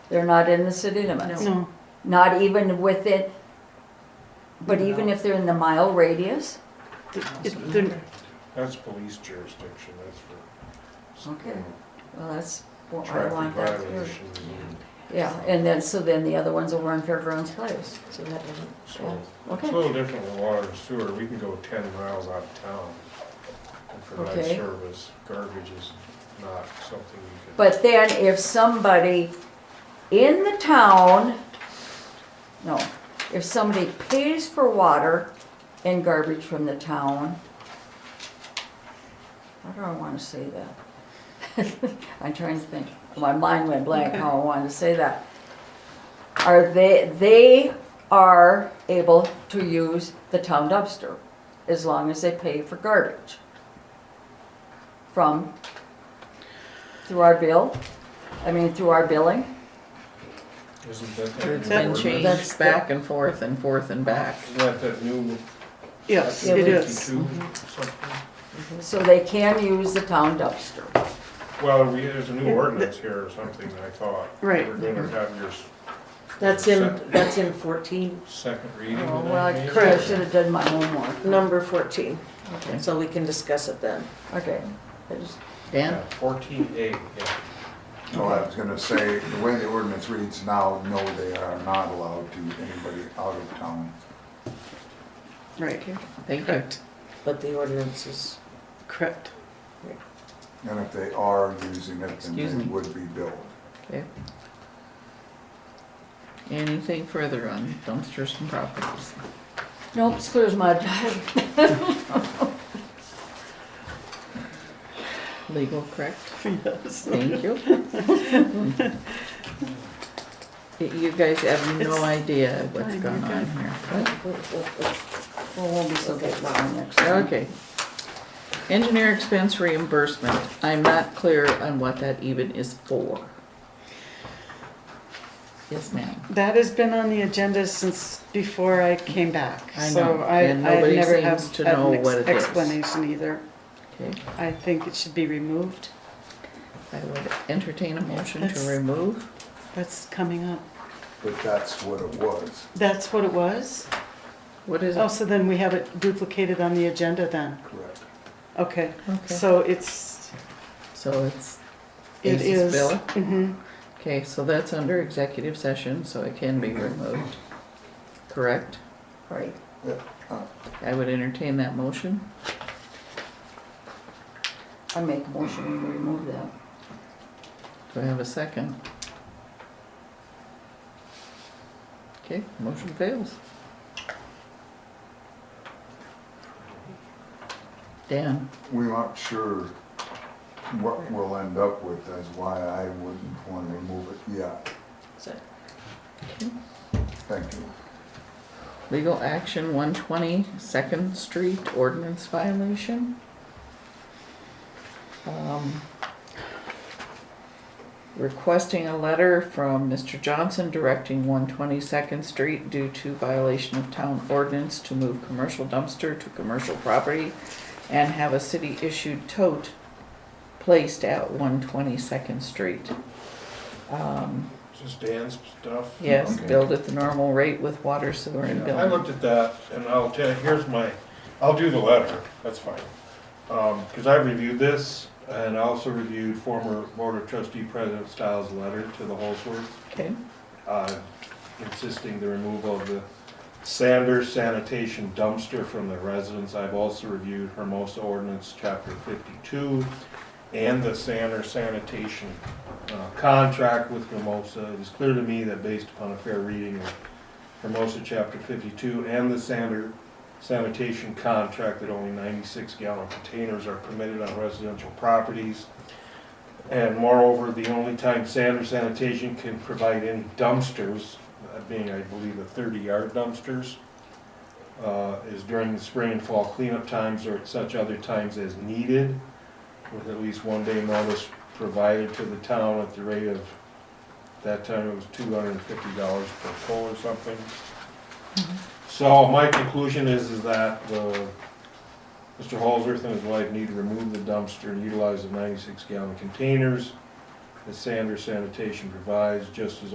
They're not in the city limits. No. Not even within, but even if they're in the mile radius? Th- it- they're- That's police jurisdiction, that's for. you Okay. know, Well, that's what I Traffic want that through. violations and Yeah, and then, so then the other ones will run Fairgrounds Place, so that doesn't, so. It's a okay. little different with water and sewer, we can go ten miles out of town and provide Okay. service. Garbage is not something you can. But then if somebody in the town, no, if somebody pays for water and garbage from the town, how do I wanna say that? I'm trying to think, my mind went blank how I wanted to say that. Are they, they are able to use the town dumpster as long as they pay for garbage from through our bill, I mean, through our billing. Isn't that that? It's new been ordinance? That's changed the- back and forth and forth and back. Isn't that that new? Yes, Yeah, it we- is. 52 something? So they can use the town dumpster. Well, we, there's a new ordinance here or something, I thought. Right. We're gonna Mm-hmm. have your s- That's in, that's in fourteen, second reading. Oh, and well, I then maybe- Correct. should have done my homework. number fourteen, Okay. so we can discuss it then. Okay. I just- Dan? Yeah, Fourteen A, yeah. No, I was gonna say, the way the ordinance reads now, no, they are not allowed to, anybody out of town. Right. Thank you. But the ordinance is, Correct. And if they are using it, then Excuse me. they would be billed. Okay. Anything further on dumpsters and properties? Nope, this clears my, Legal, correct? Yes. Thank you. Y- You guys have no It's- idea what's Fine, going you're on good. here. well, we'll be so good by next time. Okay. Engineer expense reimbursement. I'm not clear on what that even is for. Yes, ma'am. That has been on the agenda since before I came back. I So know, I, and I nobody never seems have to had know an ex- what it is. explanation either. Okay, I think it should be removed. I would entertain a motion to That's- remove. That's coming up. But that's what it was. That's what it was? What is Oh, it? so then we have it duplicated on the agenda then. Correct. Okay. Okay. So it's, So it's it Ace's is. bill? Mhm. Okay, so that's under executive session, so it can be removed, correct? Right. I would entertain that motion. I make a motion to remove that. Do I have a second? Okay, motion fails. Dan, We're not sure what we'll end up with, that's why I wouldn't wanna remove it yet. so, Thank you. legal action one twenty, Second Street ordinance violation. Um, Requesting a letter from Mr. Johnson directing one twenty Second Street due to violation of town ordinance to move commercial dumpster to commercial property and have a city issued tote placed at one twenty Second Street. Um, Just Dan's stuff? Yes, Okay. billed at the normal rate with water, sewer and Yeah, I billing. looked at that and I'll tell you, here's my, I'll do the letter, that's fine. Um, cause I reviewed this and I also reviewed former board of trustee president Styles' letter to the Holsworth. Okay, uh, insisting the removal of the Sanders sanitation dumpster from the residence. I've also reviewed Hermosa ordinance, chapter fifty-two, and the Sanders sanitation uh, contract with Hermosa. It is clear to me that based upon a fair reading of Hermosa, chapter fifty-two, and the Sanders sanitation contract, that only ninety-six gallon containers are permitted on residential properties. And moreover, the only time Sanders Sanitation can provide any dumpsters, uh, being I believe the thirty-yard dumpsters, uh, is during the spring and fall cleanup times or at such other times as needed, with at least one day notice provided to the town at the rate of, that time it was two hundred and fifty dollars per pole or something. So my conclusion is, is that the Mr. Holsworth and his wife need to remove the dumpster and utilize the ninety-six gallon containers that Sanders sanitation provides, just as